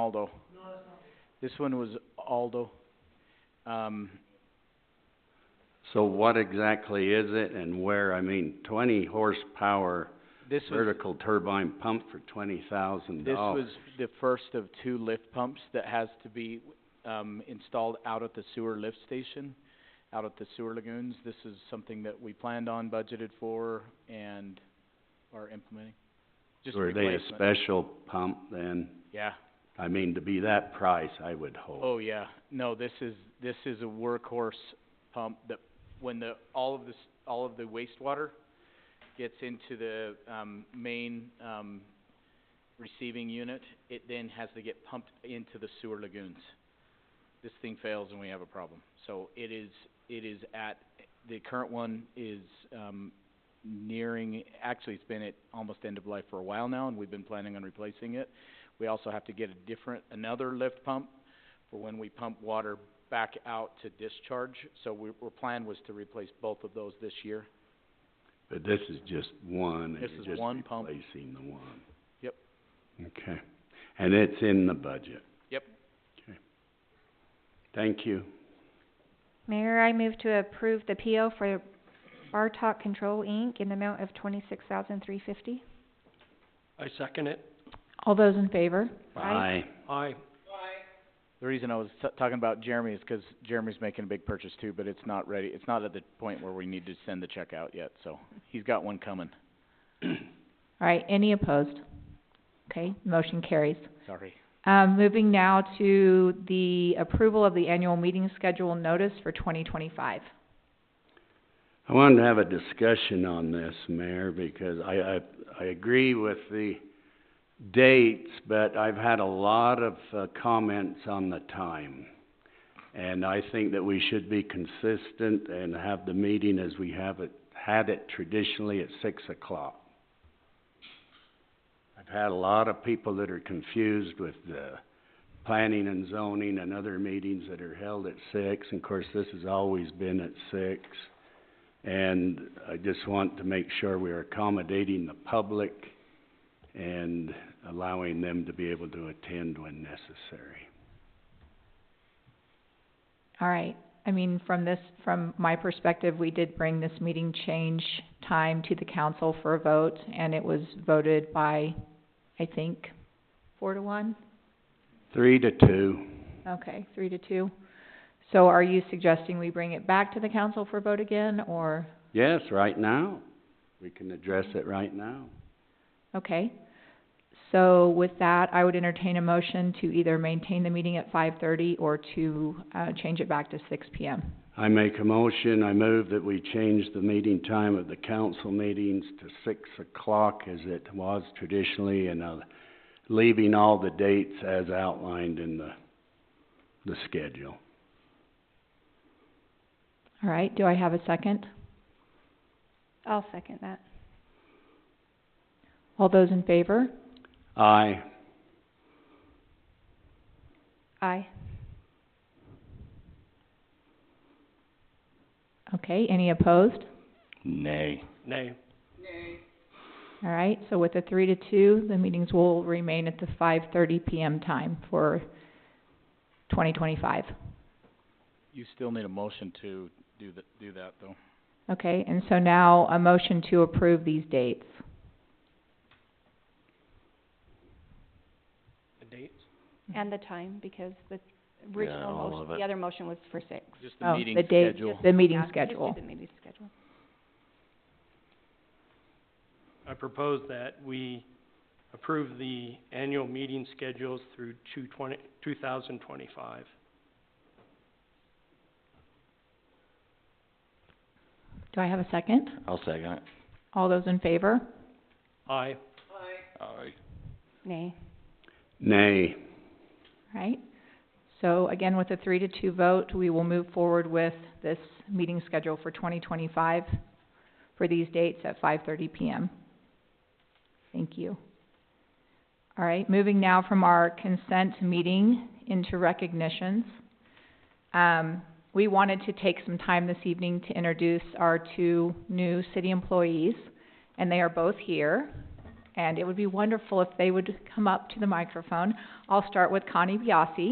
Aldo. This one was Aldo. Um, So what exactly is it and where? I mean, twenty horsepower this was, vertical turbine pump for twenty thousand this was dollars. the first of two lift pumps that has to be, um, installed out at the sewer lift station, out at the sewer lagoons. This is something that we planned on, budgeted for, and are implementing. Just Were they a replacement. special pump then? Yeah. I mean, to be that price, I would hope. Oh, yeah, no, this is, this is a workhorse pump that, when the, all of this, all of the wastewater gets into the, um, main, um, receiving unit, it then has to get pumped into the sewer lagoons. This thing fails and we have a problem, so it is, it is at, the current one is, um, nearing, actually, it's been at almost end of life for a while now, and we've been planning on replacing it. We also have to get a different, another lift pump for when we pump water back out to discharge. So we, our plan was to replace both of those this year. But this is just one, and This you're is just one pump. replacing the one. Yep. Okay, and it's in the budget? Yep. Okay. Thank you. Mayor, I move to approve the PO for Bartok Control Inc. in the amount of twenty-six thousand three fifty. I second it. All those in favor? Aye. Bye. Aye. The reason I was t- talking about Jeremy is 'cause Jeremy's making a big purchase too, but it's not ready, it's not at the point where we need to send the check out yet, so he's got one coming. All right, any opposed? Okay, motion carries. Sorry. Um, moving now to the approval of the annual meeting schedule notice for twenty twenty-five. I wanted to have a discussion on this, Mayor, because I, I, I agree with the dates, but I've had a lot of, uh, comments on the time. And I think that we should be consistent and have the meeting as we have it, had it traditionally at six o'clock. I've had a lot of people that are confused with the planning and zoning and other meetings that are held at six. And of course, this has always been at six. And I just want to make sure we are accommodating the public and allowing them to be able to attend when necessary. All right, I mean, from this, from my perspective, we did bring this meeting change time to the council for a vote, and it was voted by, I think, four to one? Three to two. Okay, three to two. So are you suggesting we bring it back to the council for vote again, or? Yes, right now. We can address it right now. Okay. So with that, I would entertain a motion to either maintain the meeting at five thirty or to, uh, change it back to six P M. I make a motion, I move that we change the meeting time of the council meetings to six o'clock as it was traditionally and, uh, leaving all the dates as outlined in the, the schedule. All right, do I have a second? I'll second that. All those in favor? Aye. Aye. Okay, any opposed? Nay. Nay. All right, so with a three to two, the meetings will remain at the five thirty P M time for twenty twenty-five. You still need a motion to do th- do that though. Okay, and so now a motion to approve these dates. The dates? Mm-hmm. And the time, because the original all motion, of the other motion was for six. Just the meeting Oh, the date, schedule. the meeting Yeah, just do schedule. the meeting schedule. I propose that we approve the annual meeting schedules through two twenty, two thousand twenty-five. Do I have a second? I'll second it. All those in favor? Aye. Aye. Nay. Nay. Right? So again, with a three to two vote, we will move forward with this meeting schedule for twenty twenty-five for these dates at five thirty PM. Thank you. All right, moving now from our consent meeting into recognitions. Um, we wanted to take some time this evening to introduce our two new city employees, and they are both here. And it would be wonderful if they would come up to the microphone. I'll start with Connie Biasi.